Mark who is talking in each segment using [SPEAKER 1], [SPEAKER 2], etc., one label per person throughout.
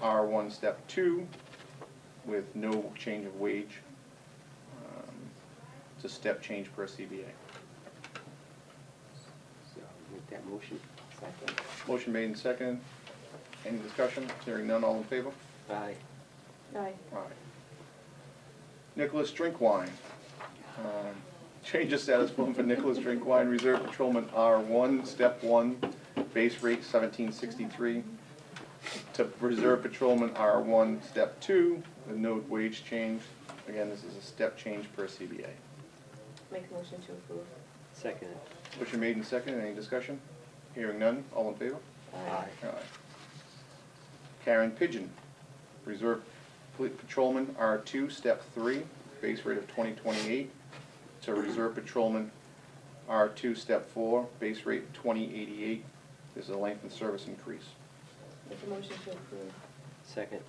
[SPEAKER 1] R one, step two, with no change of wage. Um, It's a step change per CBA.
[SPEAKER 2] So make that motion. Second.
[SPEAKER 1] Motion made and seconded. Any discussion? Hearing none, all in favor?
[SPEAKER 2] Aye.
[SPEAKER 3] Aye.
[SPEAKER 1] Aye. Nicholas Drinkwine. Um, Change of status form for Nicholas Drinkwine, Reserve Patrolman R1, Step 1, base rate 1763, to Reserve Patrolman R1, Step 2, with no wage change. Again, this is a step change per CBA.
[SPEAKER 3] Make a motion to approve.
[SPEAKER 2] Second.
[SPEAKER 1] Motion made and seconded. Any discussion? Hearing none. All in favor? Aye. Karen Pigeon, Reserve Fleet Patrolman R2, Step 3, base rate of 2028, to Reserve Patrolman R2, Step 4, base rate 2088. This is a length and service increase.
[SPEAKER 3] Make a motion to approve.
[SPEAKER 2] Second.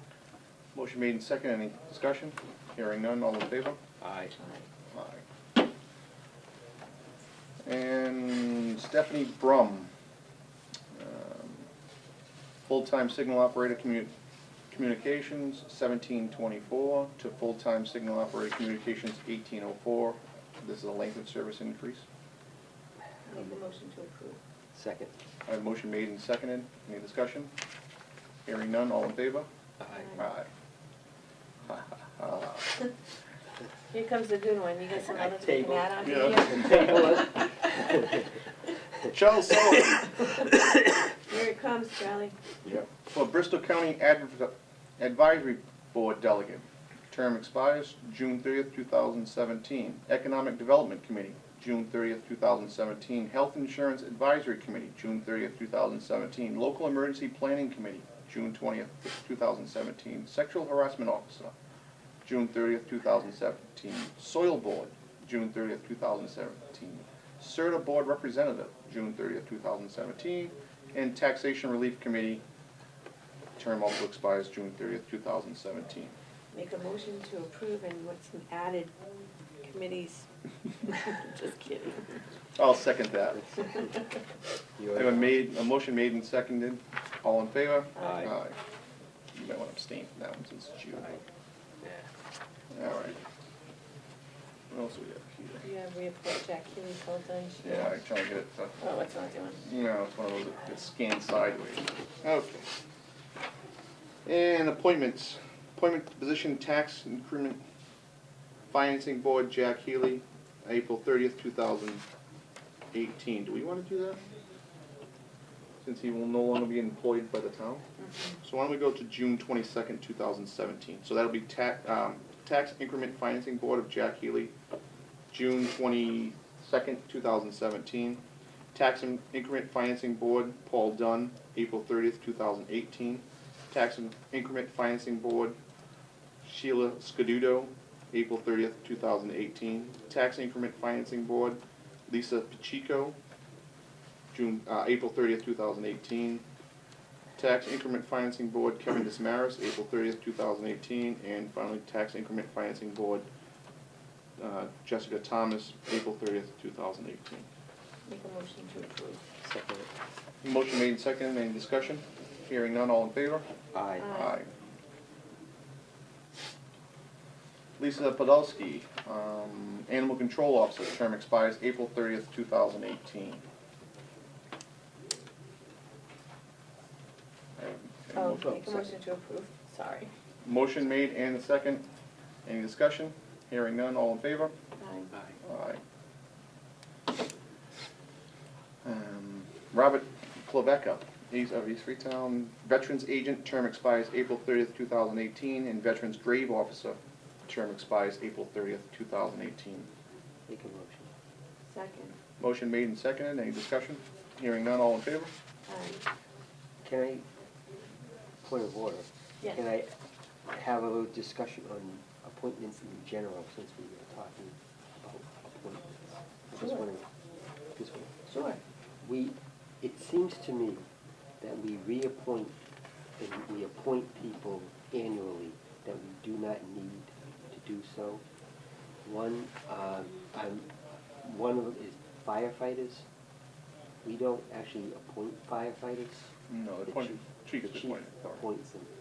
[SPEAKER 1] Motion made and second, any discussion? Hearing none, all in favor?
[SPEAKER 2] Aye.
[SPEAKER 3] Aye.
[SPEAKER 1] Aye. And Stephanie Brum, um, full-time signal operator commu- communications seventeen twenty-four to full-time signal operator communications eighteen oh four. This is a length of service increase.
[SPEAKER 3] Make a motion to approve.
[SPEAKER 2] Second.
[SPEAKER 1] I have a motion made and seconded. Any discussion? Hearing none, all in favor?
[SPEAKER 2] Aye.
[SPEAKER 1] Aye. Ha, ha, ha.
[SPEAKER 3] Here comes the good one, you got some others we can
[SPEAKER 2] Table.
[SPEAKER 3] add on to
[SPEAKER 1] Yeah.
[SPEAKER 3] here?
[SPEAKER 1] Charles Sullivan.
[SPEAKER 3] Here it comes, Charlie.
[SPEAKER 1] For Bristol County Adv- Advisory Board Delegate, term expires June thirtieth, two thousand seventeen. Economic Development Committee, June thirtieth, two thousand seventeen. Health Insurance Advisory Committee, June thirtieth, two thousand seventeen. Local Emergency Planning Committee, June twentieth, two thousand seventeen. Sexual Harassment Officer, June thirtieth, two thousand seventeen. Soil Board, June thirtieth, two thousand seventeen. CERTA Board Representative, June thirtieth, two thousand seventeen. And Taxation Relief Committee, term also expires June thirtieth, two thousand seventeen.
[SPEAKER 3] Make a motion to approve and what's some added committees. Just kidding.
[SPEAKER 1] I'll second that. I
[SPEAKER 2] You
[SPEAKER 1] have a made, a motion made and seconded. All in favor?
[SPEAKER 2] Aye.
[SPEAKER 1] You might want to abstain from that one since it's you.
[SPEAKER 2] Yeah.
[SPEAKER 1] All right. What else we got
[SPEAKER 3] You have reappoint Jack Huey full-time.
[SPEAKER 1] here? Yeah, I'm trying to get it to,
[SPEAKER 3] Oh, it's not doing.
[SPEAKER 1] no, it's one of those that gets scanned sideways. Okay. And appointments. Appointment to position tax increment financing board, Jack Healy, April thirtieth, two thousand eighteen. Do we want to do that? Since he will no longer be employed by the town? So why don't we go to June twenty-second, two thousand seventeen? So that'll be tax, um, tax increment financing board of Jack Healy, June twenty-second, two thousand seventeen. Tax and Increment Financing Board, Paul Dunn, April thirtieth, two thousand eighteen. Tax and Increment Financing Board, Sheila Scadudo, April thirtieth, two thousand eighteen. Tax Increment Financing Board, Lisa Pacheco, June, uh, April thirtieth, two thousand eighteen. Tax Increment Financing Board, Kevin Dismaris, April thirtieth, two thousand eighteen. And finally, Tax Increment Financing Board, uh, Jessica Thomas, April thirtieth, two thousand eighteen.
[SPEAKER 3] Make a motion to approve.
[SPEAKER 2] Second.
[SPEAKER 1] Motion made and seconded, any discussion? Hearing none, all in favor?
[SPEAKER 2] Aye.
[SPEAKER 3] Aye.
[SPEAKER 1] Lisa Podolsky, um, Animal Control Officer, term expires April thirtieth, two thousand eighteen.
[SPEAKER 3] Oh, make a motion to approve, sorry.
[SPEAKER 1] Motion made and a second, any discussion? Hearing none, all in favor?
[SPEAKER 3] Aye.
[SPEAKER 2] Aye.
[SPEAKER 1] Aye. Um, Robert Klebecka, East of East Freetown, Veterans Agent, term expires April thirtieth, two thousand eighteen, and Veterans Grave Officer, term expires April thirtieth, two thousand eighteen.
[SPEAKER 2] Make a motion.
[SPEAKER 3] Second.
[SPEAKER 1] Motion made and seconded, any discussion? Hearing none, all in favor?
[SPEAKER 3] Aye.
[SPEAKER 2] Can I, point of order?
[SPEAKER 3] Yes.
[SPEAKER 2] Can I have a little discussion on appointments in general, since we were talking about appointments? Just
[SPEAKER 3] Sure.
[SPEAKER 2] wanna, just wanna
[SPEAKER 3] Sure.
[SPEAKER 2] we, it seems to me that we reappoint, and we appoint people annually that we do not need to do so. One, um, I'm, one of them is firefighters. We don't actually appoint firefighters.
[SPEAKER 1] No, the point, chief is
[SPEAKER 2] The
[SPEAKER 1] appointed.
[SPEAKER 2] appoints them.